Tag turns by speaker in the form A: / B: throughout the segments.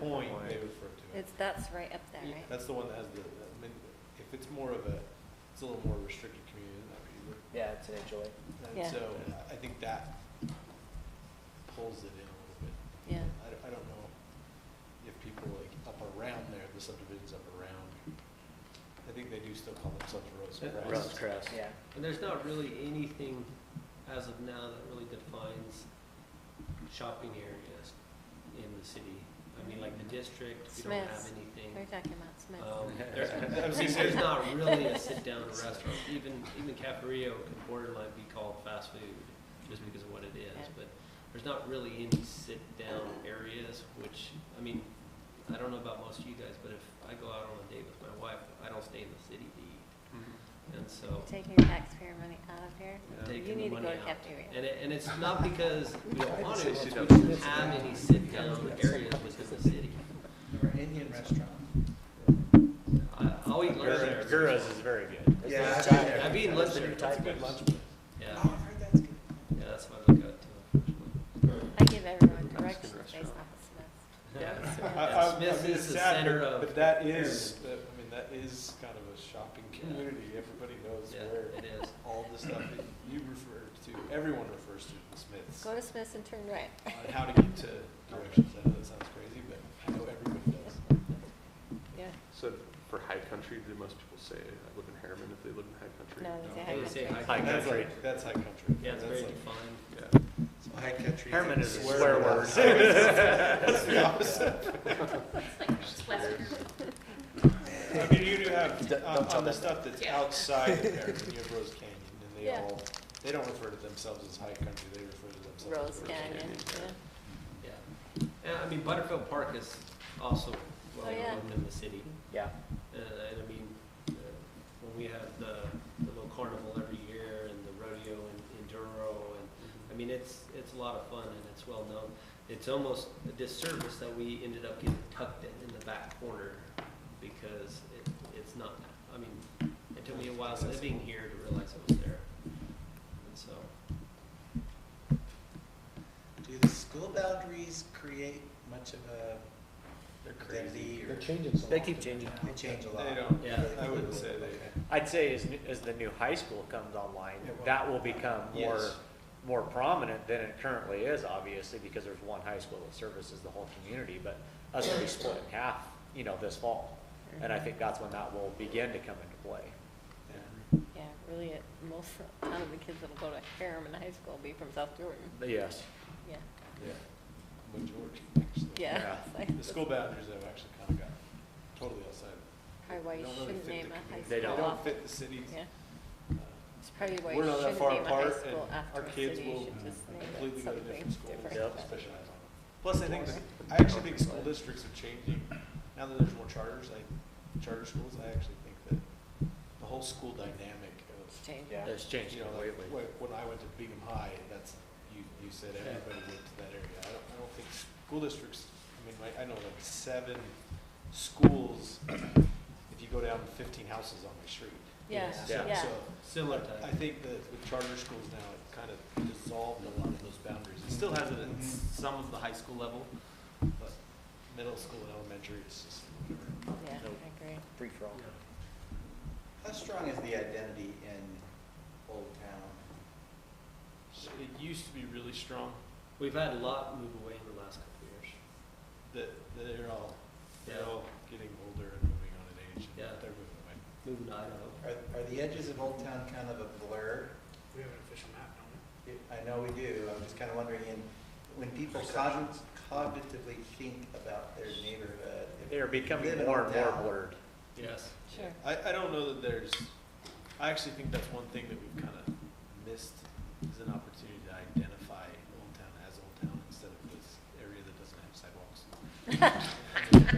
A: point
B: point.
A: they refer to it.
C: It's, that's right up there, right?
A: That's the one that has the, I mean, if it's more of a, it's a little more restricted community than that,
B: Yeah, it's an HOA.
A: but
C: Yeah.
A: and so I think that pulls it in a little bit.
C: Yeah,
A: I don't, I don't know if people like up around there, the subdivisions up around. I think they do still call themselves roads and
D: Yeah.
A: crosses.
B: Crest. Yeah.
D: And there's not really anything as of now that really defines shopping areas in the city. I mean, like the district, we don't have
C: Smith's. we're
D: anything.
C: talking about Smith.
D: Um, there's,
A: I was gonna say-
D: there's not really a sit-down restaurant. Even, even Capario could borderline be called fast food just because of what it is.
C: Yeah.
D: But there's not really any sit-down areas, which, I mean, I don't know about most of you guys, but if I go out on a date with my wife, I don't stay in the city to eat. And so.
C: Taking your taxpayer money out of here,
D: Yeah.
C: you
D: Taking the
C: need to go
D: money
C: to
D: out.
C: cafeteria.
D: And it, and it's not because we don't want to,
B: I'd say
D: it's we
B: sit-down.
D: don't have any sit-down areas within the city.
E: Or Indian restaurant.
D: I, I'll eat lunch there.
B: Gurus is very good.
E: Yeah, I've been there.
D: I've eaten lunch there.
B: That's a good lunch.
D: Yeah,
E: Oh, I've heard that's good.
D: yeah, that's what I look out to, unfortunately.
C: I give everyone
D: good
C: directions based
D: restaurant.
C: off
F: Uh,
C: of
D: Yeah.
A: I-
C: Smith's.
A: I- I
D: Smith's
A: mean,
D: is
A: it's
D: the
A: sad,
D: center
A: but-
D: of-
A: But that is, that- I mean, that is kind of a shopping
D: Yeah.
A: community. Everybody knows where
D: Yeah, it is.
A: all the stuff that you refer to, everyone refers to the Smiths.
C: Go to Smith's and turn right.
A: On how to get to directions, I know that sounds crazy, but I know everybody does.
C: Yeah,
F: So for high country, do most people say I live in Harriman if they live in high country?
C: no, they
D: They
C: say
D: say
C: high
D: high
C: country.
B: High
A: That's
B: country.
A: like- That's high country.
D: Yeah, it's
A: That's
D: very
A: like-
D: defined.
F: Yeah.
E: High country.
B: Herman is a
A: Swear
B: swear word.
A: word. That's the opposite. I mean, you do have,
B: Don't-
A: on,
B: don't tell
A: on the
B: them.
A: stuff that's outside of Harriman, you have Rose Canyon, and they
C: Yeah.
A: all, they don't refer to themselves as high country, they refer to themselves as
C: Rose
A: Rose
C: Canyon, yeah.
D: Yeah. And I mean, Butterfield Park is also well
C: Oh, yeah.
D: known in the city.
B: Yeah.
D: Uh, and I mean, uh, when we have the, the little carnival every year and the rodeo in, in Duro and, I mean, it's, it's a lot of fun and it's well known. It's almost a disservice that we ended up getting tucked in, in the back corner because it, it's not, I mean, it took me a while living here to realize it was there. And so,
E: Do the school boundaries create much of a identity or?
B: changing. They keep changing.
E: They change a lot.
A: They don't,
D: yeah.
A: I wouldn't say they.
B: I'd say as, new- as the new high school comes online,
A: It will.
B: that will become more,
A: Yes.
B: more prominent than it currently is, obviously, because there's one high school that services the whole community, but us will be split in half, you know, this fall. And I think that's when that will begin to come into play.
C: Yeah, really, it- most, a lot of the kids that'll go to Harriman High School will be from South Jordan,
B: But Yes,
C: yeah,
A: Yeah, majority, actually.
C: yeah.
B: Yeah.
C: it's like-
A: The school boundaries have actually kind of got totally outside.
C: Probably why you
A: They don't really
C: shouldn't
A: fit
C: name
A: the
C: a high
A: community.
C: school.
B: They don't.
A: They don't
C: off-
A: fit the cities.
C: Yeah,
A: Uh,
C: it's probably why you
A: We're not that
C: shouldn't
A: far
C: name a high
A: apart,
C: school
A: and
C: after
A: our
C: a
A: kids
C: city,
A: will
C: you should just name
A: completely go to different
C: it something
A: schools
C: different.
A: that
B: Yep.
A: specialize on it. Plus, I think, the- I actually think school districts are changing, now that there's more charters, like charter schools, I actually think that the whole school dynamic
C: It's
A: of,
C: changed.
B: yeah, it's changed
A: you know, like,
B: completely.
A: like, when I went to Bingham High, that's, you, you said everybody went to that area. I don't, I don't think school districts, I mean, like, I know like seven schools, if you go down fifteen houses on my street.
C: Yeah,
B: Yeah.
C: yeah,
A: So,
D: Similar
A: I
D: type.
A: think that with charter schools now, it kind of dissolved a lot of those boundaries. It still has it at
D: Mm-hmm.
A: some of the high school level, but middle school and elementary is just whatever.
C: yeah,
B: Nope.
C: I agree.
B: Free for all.
D: Yeah.
E: How strong is the identity in Old Town?
A: So It used to be really strong,
D: We've had a lot move away in the last couple of years.
A: that that they're all, they're
D: Yeah.
A: all getting older and moving on in age. and
D: Yeah.
A: They're moving away.
D: Moving to Idaho.
E: Are, are the edges of Old Town kind of a blur?
G: We have an official map, don't we?
E: It- I know we do, I'm just kind of wondering, in when people cogn- cognitively think about their neighborhood. if
B: They are
E: live
B: becoming
E: in
B: more
E: Old
B: and more
E: Town,
B: blurred.
D: Yes.
C: Sure.
A: I, I don't know that there's, I actually think that's one thing that we've kind of missed, is an opportunity to identify Old Town as Old Town instead of this area that doesn't have sidewalks.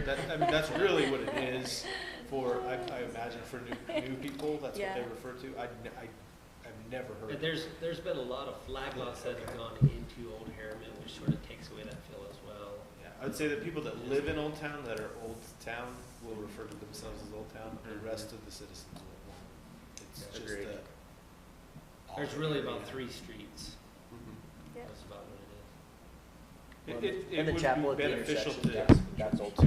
A: That, I mean, that's really what it is for, I, I imagine for new, new people, that's what they
C: Yeah.
A: refer to. I, n- I, have never heard.
D: And there's, there's been a lot of flag lots that have gone into Old Harriman, which sort of takes away that feel as well.
A: Yeah, I would say that people that live in Old Town, that are Old Town, will refer to themselves as Old Town, the rest of the citizens will won't. It's
B: Mm-hmm. Yeah.
A: just
B: Agreed.
A: a.
D: There's really about three streets,
F: Mhm.
B: Mm-hmm.
C: Yep.
D: that's about what it is.
H: It-
A: And
H: it- it
A: the
H: would
A: chapel
H: be
A: at the
H: beneficial
A: intersection,
H: to-
A: that's- That's old too.